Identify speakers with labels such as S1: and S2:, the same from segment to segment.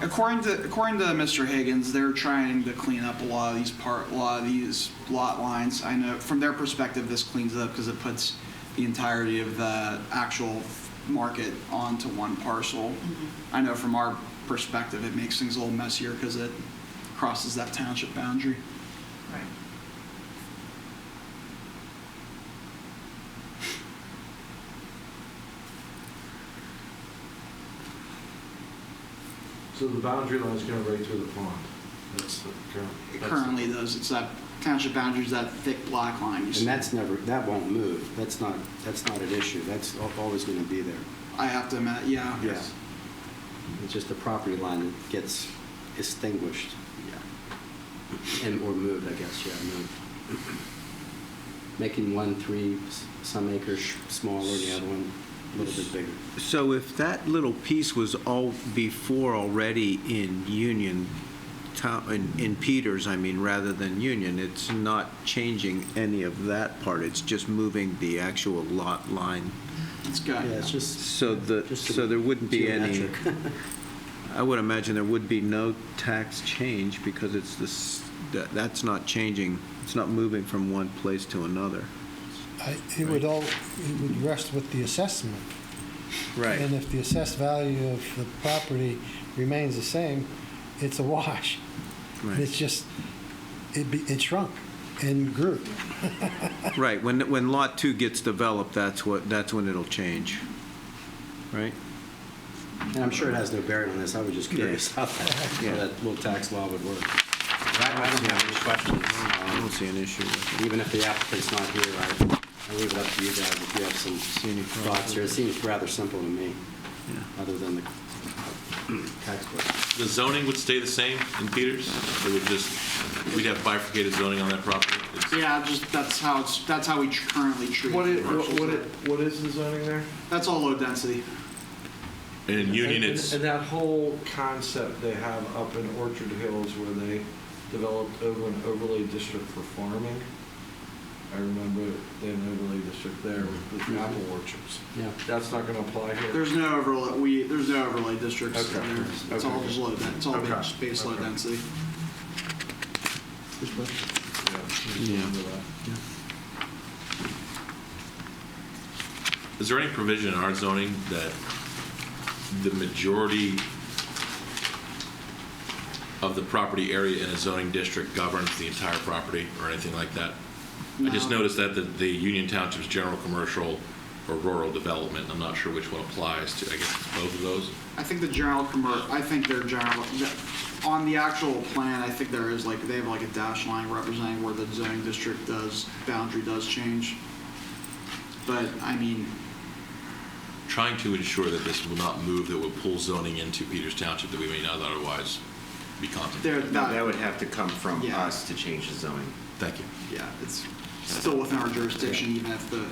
S1: According to, according to Mr. Higgins, they're trying to clean up a lot of these part, a lot of these lot lines. I know, from their perspective, this cleans it up because it puts the entirety of the actual market onto one parcel. I know from our perspective, it makes things a little messier because it crosses that township boundary.
S2: Right.
S3: So the boundary line is going right through the pond. That's the current.
S1: It
S3: that's the-
S1: currently does, it's that township boundaries, that thick black line. you see.
S4: And that's never, that won't move. That's not, that's not an issue. That's al- always going to be there.
S1: I have to admit, yeah.
S4: Yeah. It's just the property line that gets extinguished. Yeah. And, or moved, I guess, yeah, moved. Making one three, s- some acres sh- smaller, the other one a little bit bigger.
S5: So if that little piece was all before already in Union, Town- in in Peters, I mean, rather than Union, it's not changing any of that part, it's just moving the actual lot line.
S1: It's good.
S4: Yeah, it's just.
S5: So the,
S4: just
S5: so there wouldn't be any,
S4: geometric.
S5: I would imagine there would be no tax change because it's this, that- that's not changing, it's not moving from one place to another.
S6: I- It would all, it would rest with the assessment. And if the assessed value of the property remains the same, it's a wash. It's just, it be- it shrunk and grew.
S5: Right, when, when Lot 2 gets developed, that's what, that's when it'll change, right?
S4: And I'm sure it has no bearing on this. I was just curious
S5: Yeah.
S4: how that, how
S5: Yeah.
S4: that little tax law would work. Um,
S7: I don't have any questions.
S5: I don't see an issue with
S4: even if the applicant's not here, I, I leave it up to you guys if you have some
S5: any problem.
S4: thoughts here. It seems rather simple to me,
S5: it, yeah.
S4: other than the tax question.
S7: The zoning would stay the same in Peters? It would just, we'd have bifurcated zoning on that property? It's-
S1: Yeah, just, that's how it's, that's how we tr- currently treat.
S3: What is,
S1: commercials.
S3: what- what is- what is the zoning there?
S1: That's all low density.
S7: And in Union,
S3: And-
S7: it's,
S3: And that whole concept they have up in Orchard Hills where they developed over an overlay district for farming. I remember they had an overlay district there with the apple orchards.
S4: Yeah.
S3: That's not going to apply here?
S1: There's no overlay, we, there's no overlay districts
S3: Okay.
S1: in there. It's all
S3: Okay.
S1: just low, den- it's all
S3: Okay.
S1: space low
S3: Okay.
S1: density.
S3: Yeah,
S5: Yeah.
S3: remember that.
S7: is there any provision in our zoning that the majority of the property area in a zoning district governs the entire property or anything like that? I just
S1: No.
S7: noticed that the, the Union Township's general commercial or rural development, I'm not sure which one applies to, I guess it's both of those.
S1: I think the general commer, I think their general, the- on the actual plan, I think there is like, they have like a dash line representing where the zoning district does, boundary does change. But, I mean,
S7: trying to ensure that this will not move, that will pull zoning into Peters Township that we may not otherwise be
S1: they're,
S7: contemplating.
S8: No, that
S1: that,
S8: would have to come from
S1: Yeah.
S8: us to change the zoning.
S7: Thank you.
S1: yeah, it's still within our jurisdiction, even if the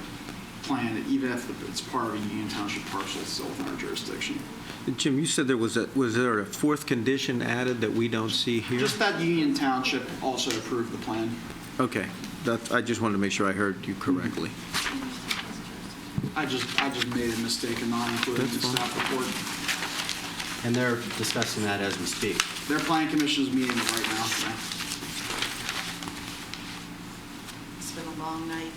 S1: plan, even if the- it's part of a Union Township parcel, it's still within our jurisdiction.
S5: And Jim, you said there was a, was there a fourth condition added that we don't see here?
S1: Just that Union Township also approved the plan.
S5: Okay, that, I just wanted to make sure I heard you correctly.
S1: I just, I just made a mistake in not including the
S5: That's fine.
S1: staff report.
S4: And they're discussing that as we speak.
S1: Their planning commission is meeting right now, so
S2: It's been a long night,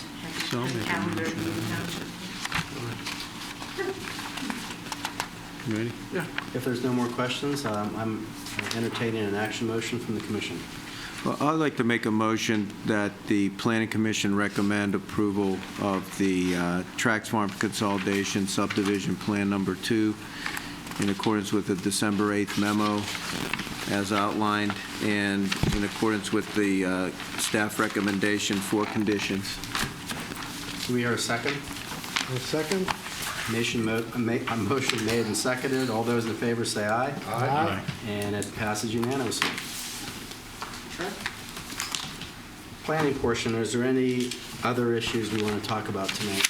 S5: So I'll
S2: having
S5: make a
S2: a calendar
S5: motion.
S2: meeting township.
S5: Mm-hmm. You Ready?
S4: If there's no more questions, um, I'm entertaining an action motion from the commission.
S5: Well, I'd like to make a motion that the Planning Commission recommend approval of the uh, Trax Farm Consolidation Subdivision Plan Number Two in accordance with the December 8th memo as outlined and in accordance with the uh, staff recommendation for conditions.
S4: Do we hear a second?
S6: A second?
S4: Motion, mo- a ma- a motion made and seconded. All those in favor say aye.
S6: Aye.
S4: And it passes unanimously.
S1: okay.
S4: Planning portion, is there any other issues we want to talk about tonight?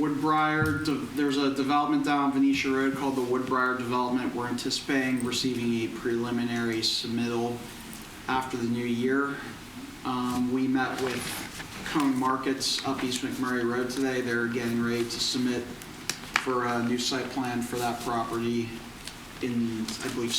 S1: Woodbriar, de- there's a development down Venetia Road called the Woodbriar Development. We're anticipating receiving a preliminary submittal after the new year. Um, We met with Cone Markets up East McMurray Road today. They're getting ready to submit for a new site plan for that property in, I believe,